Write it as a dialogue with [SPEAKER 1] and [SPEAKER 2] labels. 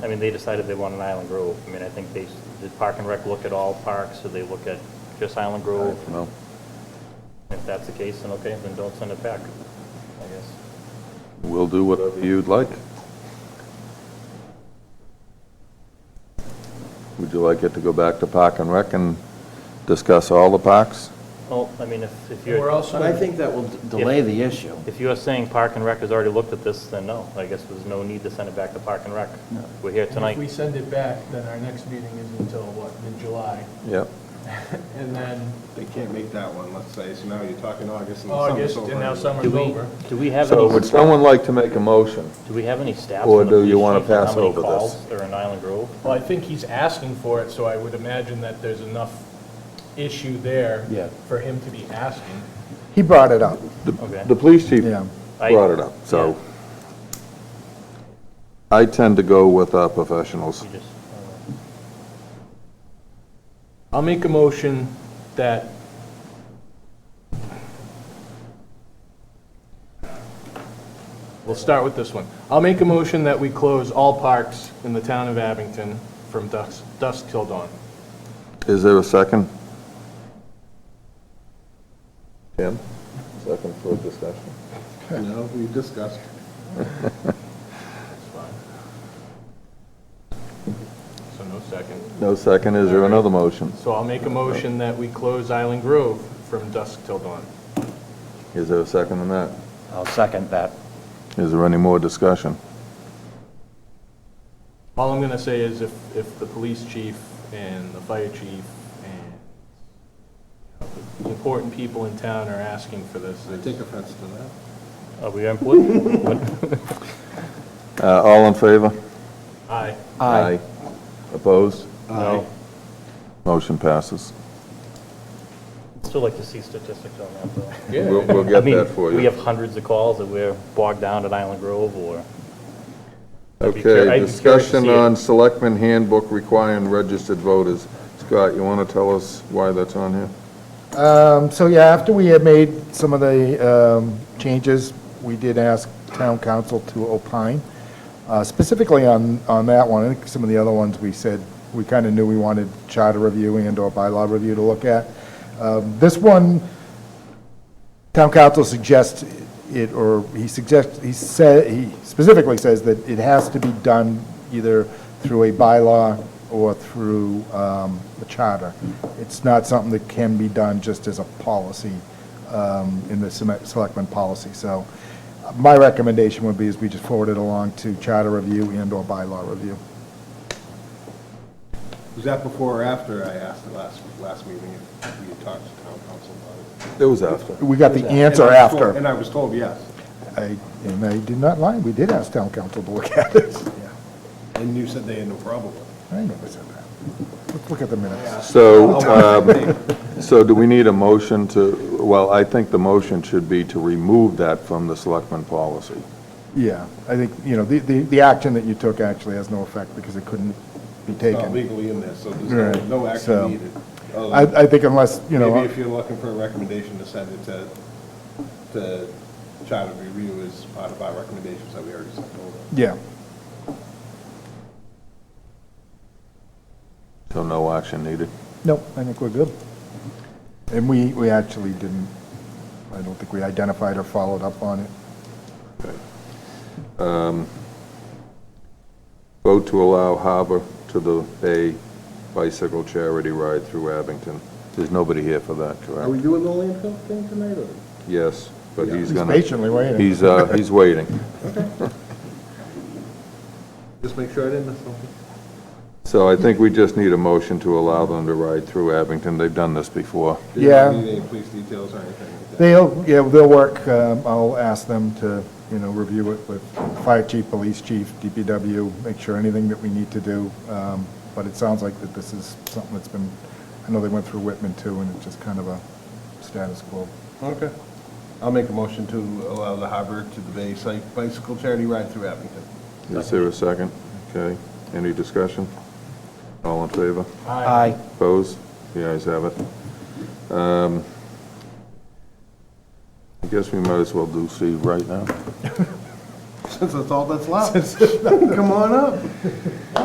[SPEAKER 1] I mean, they decided they wanted Island Grove. I mean, I think they, s- did Park and Rec look at all parks, so they look at just Island Grove?
[SPEAKER 2] Well,
[SPEAKER 1] If that's the case, then okay, then don't send it back, I guess.
[SPEAKER 2] we'll do whatever you'd like. Would you like it to go back to Park and Rec and discuss all the parks?
[SPEAKER 1] Well, I mean, if, if
[SPEAKER 3] We're
[SPEAKER 1] you're,
[SPEAKER 3] also,
[SPEAKER 4] But I think that will d- delay the issue.
[SPEAKER 1] if you're saying Park and Rec has already looked at this, then no, I guess there's no need to send it back to Park and Rec. We're here
[SPEAKER 3] if we
[SPEAKER 1] tonight.
[SPEAKER 3] send it back, then our next meeting is until, what, mid-July?
[SPEAKER 2] Yep.
[SPEAKER 3] And then
[SPEAKER 5] They can't make that one, let's say, so now you're talking August and summer's
[SPEAKER 3] August,
[SPEAKER 5] over.
[SPEAKER 3] and now
[SPEAKER 1] Do
[SPEAKER 3] summer's
[SPEAKER 1] we,
[SPEAKER 3] over.
[SPEAKER 1] do we have
[SPEAKER 2] So
[SPEAKER 1] any,
[SPEAKER 2] would someone like to make a motion?
[SPEAKER 1] do we have any stats
[SPEAKER 2] Or
[SPEAKER 1] on the
[SPEAKER 2] do you
[SPEAKER 1] police
[SPEAKER 2] wanna
[SPEAKER 1] chief on
[SPEAKER 2] pass
[SPEAKER 1] how many
[SPEAKER 2] over this?
[SPEAKER 1] calls are in Island Grove?
[SPEAKER 3] Well, I think he's asking for it, so I would imagine that there's enough issue there
[SPEAKER 4] Yeah.
[SPEAKER 3] for him to be asking.
[SPEAKER 6] He brought it up,
[SPEAKER 2] The,
[SPEAKER 1] Okay.
[SPEAKER 2] the police chief
[SPEAKER 6] Yeah.
[SPEAKER 1] I-
[SPEAKER 2] brought it up, so. I tend to go with our professionals.
[SPEAKER 1] You just,
[SPEAKER 3] I'll make a motion that we'll start with this one. I'll make a motion that we close all parks in the town of Abington from dusk, dusk till dawn.
[SPEAKER 2] Is there a second? Tim? Second for discussion.
[SPEAKER 5] No, we discussed.
[SPEAKER 3] That's fine. So no second.
[SPEAKER 2] No second, is there another motion?
[SPEAKER 3] So I'll make a motion that we close Island Grove from dusk till dawn.
[SPEAKER 2] Is there a second on that?
[SPEAKER 4] I'll second that.
[SPEAKER 2] Is there any more discussion?
[SPEAKER 3] All I'm gonna say is if, if the police chief and the fire chief and the important people in town are asking for this,
[SPEAKER 5] I take offense to that.
[SPEAKER 1] uh, Are we important?
[SPEAKER 2] Uh, All in favor?
[SPEAKER 3] I,
[SPEAKER 2] Aye. Opposed? No. Motion passes.
[SPEAKER 1] Still like to see statistics on that, though.
[SPEAKER 2] We'll we'll
[SPEAKER 1] I
[SPEAKER 2] get
[SPEAKER 1] mean,
[SPEAKER 2] that for
[SPEAKER 1] We
[SPEAKER 2] you.
[SPEAKER 1] have hundreds of calls that we're bogged down at Island Grove or. I'd be curi- I'd
[SPEAKER 2] Okay,
[SPEAKER 1] be curious to
[SPEAKER 2] discussion
[SPEAKER 1] see it.
[SPEAKER 2] on selectmen handbook requiring registered voters. Scott, you want to tell us why that's on here?
[SPEAKER 6] Um, So yeah, after we had made some of the um, changes, we did ask town council to opine uh, specifically on, on that one. I think some of the other ones we said, we kind of knew we wanted charter review and/or bylaw review to look at. Um, This one, town council suggests it, or he suggests, he said, he specifically says that it has to be done either through a bylaw or through um, a charter. It's not something that can be done just as a policy um, in the seme- selectmen policy. So uh, my recommendation would be is we just forward it along to charter review and/or bylaw review.
[SPEAKER 5] Was that before or after I asked the last, last meeting if we had talked to town council about it?
[SPEAKER 2] It was after.
[SPEAKER 6] We got the answer
[SPEAKER 5] And I was told-
[SPEAKER 6] after.
[SPEAKER 5] And I was told yes.
[SPEAKER 6] I- And I did not lie, we did ask town council to look at it.
[SPEAKER 5] And you said they had no problem with it. Oh,
[SPEAKER 6] I never said that. Let's look at the minutes.
[SPEAKER 2] So, um, so do we need a motion to, well, I think the motion should be to remove that from the selectmen policy.
[SPEAKER 6] Yeah, I think, you know, the, the, the action that you took actually has no effect because it couldn't be
[SPEAKER 5] It's not
[SPEAKER 6] taken.
[SPEAKER 5] legally in there, so there's
[SPEAKER 6] Right,
[SPEAKER 5] no- no
[SPEAKER 6] so-
[SPEAKER 5] action needed. other
[SPEAKER 6] I,
[SPEAKER 5] than-
[SPEAKER 6] I think unless, you
[SPEAKER 5] oh, Maybe
[SPEAKER 6] know,
[SPEAKER 5] if you're looking for a recommendation to send it to, to charter review as part of our recommendations that we already sent over.
[SPEAKER 6] yeah,
[SPEAKER 2] So no action needed.
[SPEAKER 6] no, I think we're good. And we, we actually didn't, I don't think we identified or followed up on it.
[SPEAKER 2] Vote to allow Harbor to the Bay bicycle charity ride through Abington. There's nobody here for that, correct?
[SPEAKER 5] doing the landfill thing tonight or?
[SPEAKER 2] Yes, but he's
[SPEAKER 6] He's
[SPEAKER 2] gonna.
[SPEAKER 6] patiently waiting.
[SPEAKER 2] He's, uh, he's waiting.
[SPEAKER 5] Just make sure I didn't miss something.
[SPEAKER 2] So I think we just need a motion to allow them to ride through Abington. They've done this before.
[SPEAKER 5] They don't
[SPEAKER 6] Yeah.
[SPEAKER 5] Need any police details or anything like that?
[SPEAKER 6] They'll, yeah, they'll work, um, I'll ask them to, you know, review it with fire chief, police chief, DPW, make sure anything that we need to do. Um, But it sounds like that this is something that's been, I know they went through Whitman too, and it's just kind of a status quo.
[SPEAKER 5] Okay. I'll make a motion to allow the harbor to the Bay Psych Bicycle Charity Ride through Abington.
[SPEAKER 2] Is there a second? Okay. Any discussion? All in favor?
[SPEAKER 4] Aye.
[SPEAKER 2] Opposed? The ayes have it. Um, I guess we might as well do Steve right now.
[SPEAKER 5] Since that's all that's left. Come on up.